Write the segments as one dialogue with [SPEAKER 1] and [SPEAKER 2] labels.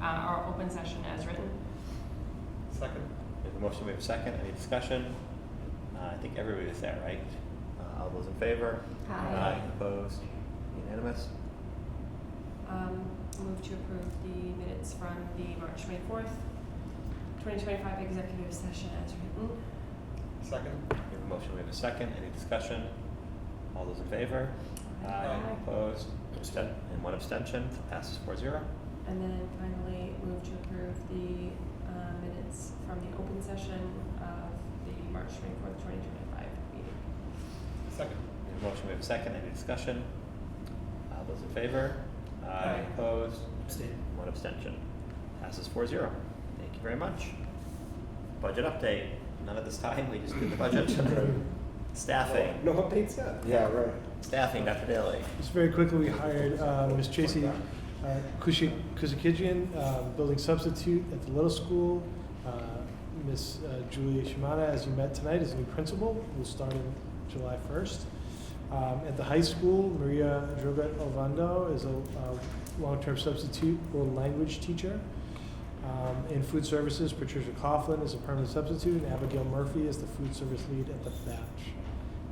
[SPEAKER 1] uh, our open session as written.
[SPEAKER 2] Second.
[SPEAKER 3] We have a motion, we have a second, any discussion? Uh, I think everybody is there, right? Uh, all those in favor?
[SPEAKER 1] Aye.
[SPEAKER 3] Opposed? Unanimous?
[SPEAKER 1] Um, move to approve the minutes from the March twenty-fourth, twenty twenty-five executive session as written.
[SPEAKER 2] Second.
[SPEAKER 3] We have a motion, we have a second, any discussion? All those in favor?
[SPEAKER 2] Aye.
[SPEAKER 3] Opposed? Absten- and one abstention, passes four zero.
[SPEAKER 1] And then finally, move to approve the uh, minutes from the open session of the March twenty-fourth, twenty twenty-five meeting.
[SPEAKER 2] Second.
[SPEAKER 3] We have a motion, we have a second, any discussion? All those in favor?
[SPEAKER 2] Aye.
[SPEAKER 3] Opposed? One abstention, passes four zero. Thank you very much. Budget update, none at this time, we just did the budget. Staffing.
[SPEAKER 2] No updates yet.
[SPEAKER 4] Yeah, right.
[SPEAKER 3] Staffing, Dr. Daly.
[SPEAKER 5] Just very quickly, we hired uh, Ms. Tracy uh, Kushi- Kuzikijian, uh, building substitute at the little school. Uh, Ms. uh, Julia Shimada, as you met tonight, is the new principal, who'll start on July 1st. Um, At the high school, Maria Drogat Ovando is a uh, long-term substitute world language teacher. Um, In food services, Patricia Coughlin is a permanent substitute, and Abigail Murphy is the food service lead at the batch.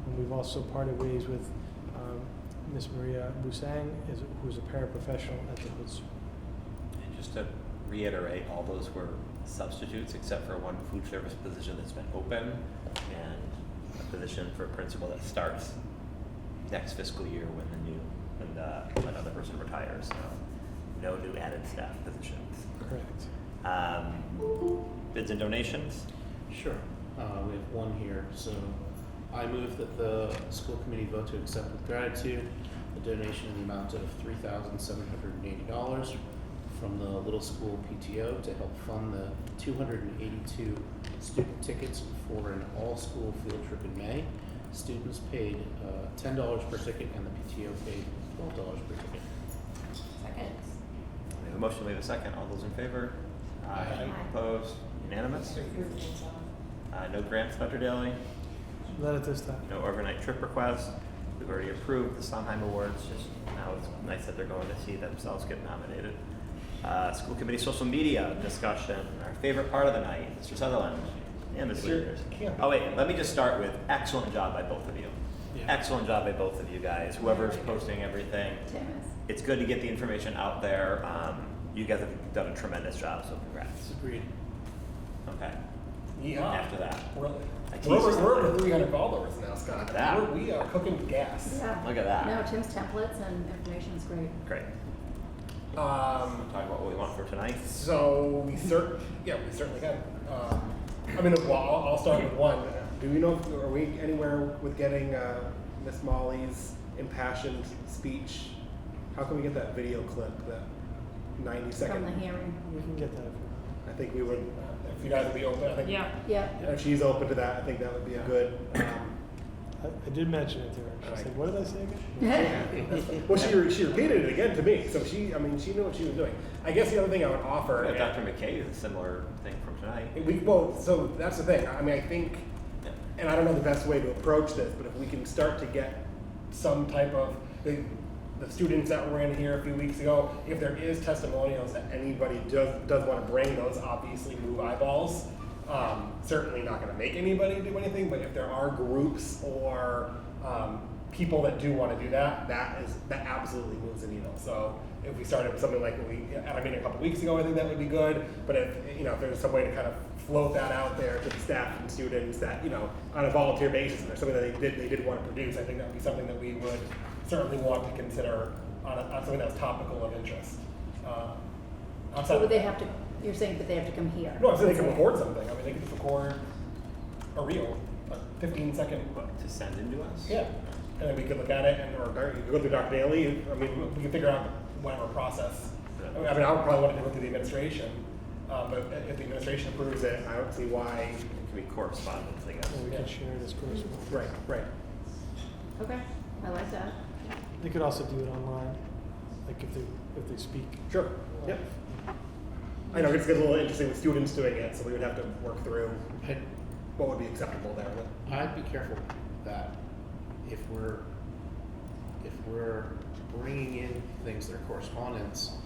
[SPEAKER 5] And we've also parted ways with um, Ms. Maria Busang, is- who is a paraprofessional at the Hood School.
[SPEAKER 3] And just to reiterate, all those were substitutes except for one food service position that's been open and a position for a principal that starts next fiscal year when the new, when the, another person retires, so no new added staff positions.
[SPEAKER 5] Correct.
[SPEAKER 3] Um, bids and donations,
[SPEAKER 4] Sure. Uh, we have one here. So I move that the school committee vote to accept with gratitude a donation in the amount of three thousand seven hundred and eighty dollars from the Little School PTO to help fund the two hundred and eighty-two student tickets for an all-school field trip in May. Students paid uh, ten dollars per ticket and the PTO paid twelve dollars per ticket.
[SPEAKER 1] Second.
[SPEAKER 3] we have a motion, we have a second, all those in favor?
[SPEAKER 4] Aye.
[SPEAKER 3] Opposed, unanimous? Uh, no grants, Dr. Daly?
[SPEAKER 5] Not at this time.
[SPEAKER 3] No overnight trip requests. We've already approved the Sondheim Awards, just now it's nice that they're going to see themselves get nominated. Uh, school committee social media discussion, our favorite part of the night, Mr. Sutherland and Ms.
[SPEAKER 2] Mr.
[SPEAKER 3] Leaders.
[SPEAKER 2] Campbell.
[SPEAKER 3] Oh wait, let me just start with excellent job by both of you.
[SPEAKER 4] Yeah.
[SPEAKER 3] Excellent job by both of you guys, whoever's posting everything. It's good to get the information out there. Um, you guys have done a tremendous job, so congrats.
[SPEAKER 4] Agreed.
[SPEAKER 3] Okay,
[SPEAKER 2] Yeah.
[SPEAKER 3] after that.
[SPEAKER 2] We're,
[SPEAKER 3] I teased
[SPEAKER 2] we're,
[SPEAKER 3] you
[SPEAKER 2] over- we're over
[SPEAKER 3] something.
[SPEAKER 2] 300 followers now, Scott.
[SPEAKER 3] Yeah.
[SPEAKER 2] We're, we are cooking gas.
[SPEAKER 3] Look at that.
[SPEAKER 6] No, Tim's templates and information's great.
[SPEAKER 3] Great.
[SPEAKER 2] Um,
[SPEAKER 3] Talk about what we want for tonight.
[SPEAKER 2] so we cer- yeah, we certainly can. Um, I mean, well, I'll, I'll start with one. Do we know, if, are we anywhere with getting uh, Miss Molly's impassioned speech? How can we get that video clip, that 90
[SPEAKER 6] From
[SPEAKER 2] second?
[SPEAKER 6] the hearing.
[SPEAKER 5] We can get that if we
[SPEAKER 2] I think we would, if you guys would be open, I think
[SPEAKER 1] Yeah.
[SPEAKER 6] Yep.
[SPEAKER 2] if she's open to that, I think that would be a good. Um,
[SPEAKER 5] I, I did mention it to her. She said, what did I say again?
[SPEAKER 2] well, she, re- she repeated it again to me, so she, I mean, she knew what she was doing. I guess the other thing I would offer.
[SPEAKER 3] Yeah, Dr. McKay is a similar thing from tonight.
[SPEAKER 2] We, well, so that's the thing. I mean, I think,
[SPEAKER 3] Yeah.
[SPEAKER 2] and I don't know the best way to approach this, but if we can start to get some type of the, the students that were in here a few weeks ago, if there is testimonials that anybody does does want to bring, those obviously move eyeballs. Um, certainly not going to make anybody do anything, but if there are groups or um, people that do want to do that, that is that absolutely moves the needle. So if we started with something like what we at our meeting a couple weeks ago, I think that would be good. But if you know if there's some way to kind of float that out there to the staff and students that you know on a volunteer basis, and there's something that they did they did want to produce, I think that would be something that we would certainly want to consider on, a, on something that's topical of interest. Uh, outside
[SPEAKER 6] So
[SPEAKER 2] of
[SPEAKER 6] would they
[SPEAKER 2] that-
[SPEAKER 6] have to, you're saying that they have to come here?
[SPEAKER 2] No, I'm saying they can record something. I mean, they could record a reel, a 15 second
[SPEAKER 3] To send into us?
[SPEAKER 2] yeah, and then we could look at it and, or Dar- you could go through Dr. Daly, I mean, we could figure out whatever process. I mean, I mean, I would probably want to go through the administration, uh, but if the administration approves it, I don't see why.
[SPEAKER 3] It can be correspondence, I guess.
[SPEAKER 5] Or we
[SPEAKER 2] Yeah.
[SPEAKER 5] can share it as correspondence.
[SPEAKER 2] Right, right.
[SPEAKER 6] Okay, I like that.
[SPEAKER 5] They could also do it online, like if they, if they speak.
[SPEAKER 2] Sure, yeah. I know, it gets a little interesting with students doing it, so we would have to work through
[SPEAKER 4] I-
[SPEAKER 2] what would be acceptable there. but-
[SPEAKER 4] I'd be careful that if we're, if we're bringing in things that are correspondence,